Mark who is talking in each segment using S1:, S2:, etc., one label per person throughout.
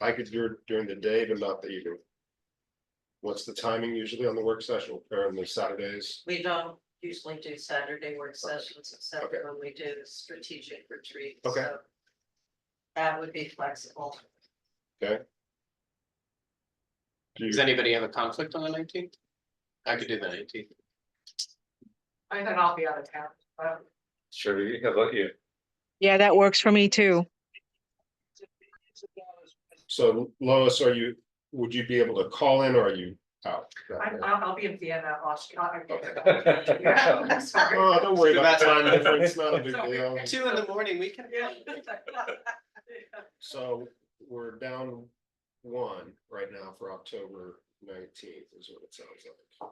S1: I could do it during the day, but not the evening. What's the timing usually on the work session or on the Saturdays?
S2: We don't usually do Saturday work sessions except
S1: Okay.
S2: when we do the strategic retreat.
S1: Okay.
S2: so That would be flexible.
S1: Do you-
S3: Does anybody have a conflict on the nineteenth? I could do the nineteenth.
S2: I think I'll be out of town.
S4: Sure, how about you?
S5: Yeah, that works for me too.
S1: So Lois, are you, would you be able to call in or are you out?
S2: I'll, I'll be in Vienna, Austria.
S4: Okay.
S1: Oh, don't worry about
S3: That's-
S1: time difference, it's not a big deal.
S3: Two in the morning, we can.
S1: So we're down one right now for October nineteenth is what it sounds like.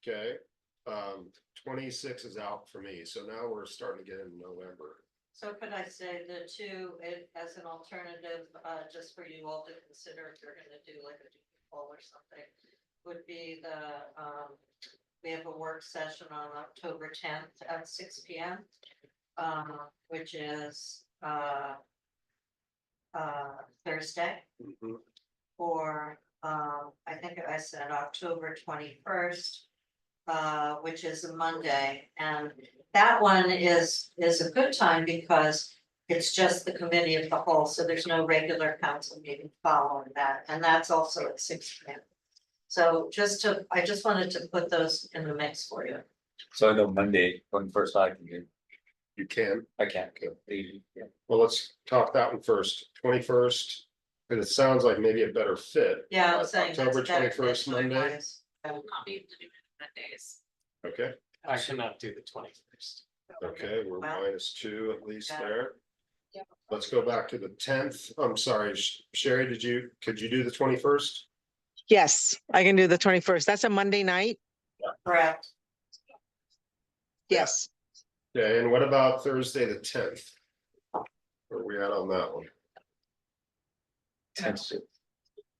S1: Okay, um, twenty-six is out for me, so now we're starting to get into November.
S2: So could I say the two it- as an alternative, uh, just for you all to consider if you're gonna do like a poll or something? Would be the, um, we have a work session on October tenth at six P M. Um, which is, uh. Uh, Thursday
S4: Mm-hmm.
S2: or, um, I think I said October twenty-first. Uh, which is a Monday, and that one is, is a good time because it's just the committee of the whole, so there's no regular council meeting following that, and that's also at six P M. So just to, I just wanted to put those in the mix for you.
S4: So I know Monday, when first I can do,
S1: You can,
S4: I can't go. Yeah.
S1: well, let's talk that one first, twenty-first, because it sounds like maybe a better fit. Uh,
S2: Yeah, I'm saying. that's
S1: October
S2: better
S1: 21st, Monday?
S2: wise.
S6: not be able to do it on Mondays.
S1: Okay,
S3: I cannot do the twenty first.
S1: okay, we're
S2: Wow.
S1: minus two at least
S2: Yeah.
S1: there.
S6: Yeah.
S1: Let's go back to the tenth, I'm sorry, Sh- Sherry, did you, could you do the twenty-first?
S5: Yes, I can do the twenty-first. That's a Monday night.
S2: Correct.
S1: Yeah.
S5: Yes.
S1: Okay, and what about Thursday, the tenth? Where are we at on that one?
S4: Tense.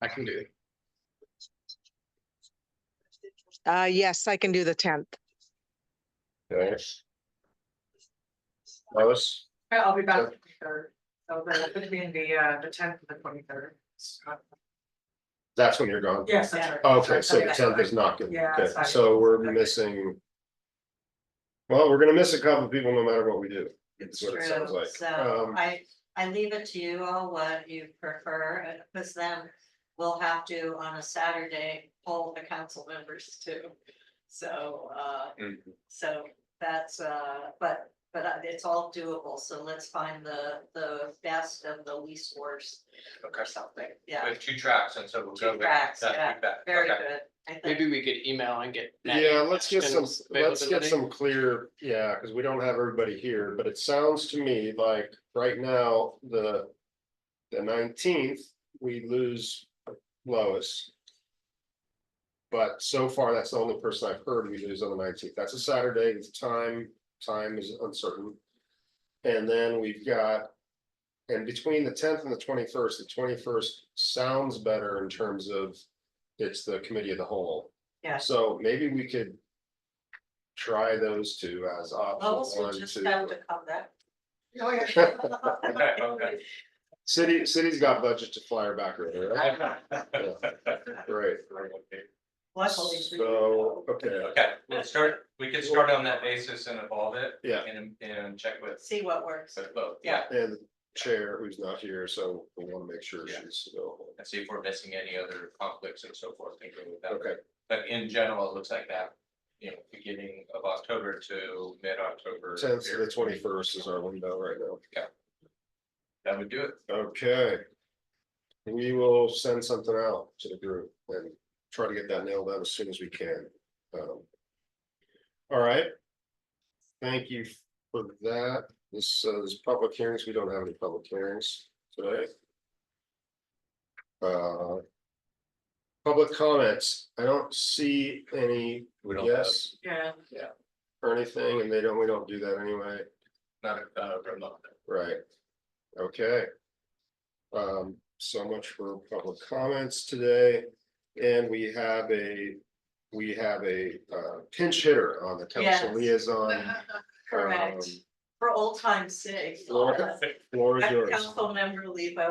S3: I can do it.
S5: Uh, yes, I can do the tenth.
S1: Okay. Lois,
S7: I'll be back the third, so the, between the, uh, the tenth and the twenty-third.
S1: that's when you're gone.
S7: Yes, that's right.
S1: Oh, Okay, so the tenth is not good.
S7: Yeah,
S1: Okay,
S7: it's fine.
S1: so we're missing. Well, we're gonna miss a couple of people no matter what we do.
S2: It's
S1: That's what it sounds
S2: true,
S1: like.
S2: so
S1: Um,
S2: I, I leave it to you all what you prefer, and- because then we'll have to on a Saturday poll the council members too. So, uh,
S1: Mm-hmm.
S4: Mhm.
S2: so that's, uh, but, but uh, it's all doable, so let's find the, the best and the least worst or something, yeah.
S8: With two tracks, and so we'll go
S2: Two
S8: with.
S2: tracks,
S8: that
S2: yeah,
S8: feedback.
S2: very
S8: Okay.
S2: good, I think,
S3: Maybe we could email and get. that
S1: Yeah, let's get some,
S3: suggestions
S1: let's get
S3: availability.
S1: some clear, yeah, because we don't have everybody here, but it sounds to me like right now, the. The nineteenth, we lose Lois. But so far, that's the only person I've heard we lose on the nineteenth. That's a Saturday, the time, time is uncertain. And then we've got. And between the tenth and the twenty-first, the twenty-first sounds better in terms of. It's the committee of the whole.
S2: yeah.
S1: So maybe we could. Try those two as
S2: Levels
S1: option
S2: will
S1: one,
S2: just have to
S1: two.
S2: come back.
S7: Oh, yeah.
S8: Okay, okay.
S1: City, city's got budget to fly her back earlier, right? Great.
S2: Luckily for you.
S1: So, okay,
S8: Okay, we'll start, we can start on that basis and evolve it.
S1: Yeah.
S8: And, and check with,
S2: See what works.
S8: with both, yeah,
S1: and the chair who's not here, so we want to make sure
S8: Yeah.
S1: she's available.
S8: and see if we're missing any other conflicts and so forth, and go with that.
S1: Okay,
S8: But in general, it looks like that, you know, beginning of October to mid-October.
S1: tenth to the twenty-first is our window right now.
S8: That would do it.
S1: Okay. We will send something out to the group and try to get that nailed down as soon as we can. Um, All right. Thank you for that. This, uh, this public hearings, we don't have any public hearings today. Uh. Public comments. I don't see any
S4: We don't have,
S1: yes
S7: Yeah.
S1: or anything, and they don't, we don't do that anyway.
S8: Not, uh, remote.
S1: Right. Okay. Um, so much for public comments today, and we have a, we have a uh, pinch hitter on the council
S2: Yes.
S1: liaison.
S2: Correct.
S1: um,
S2: For old time's sake.
S1: Laura, Laura, is yours.
S2: Council member Lebo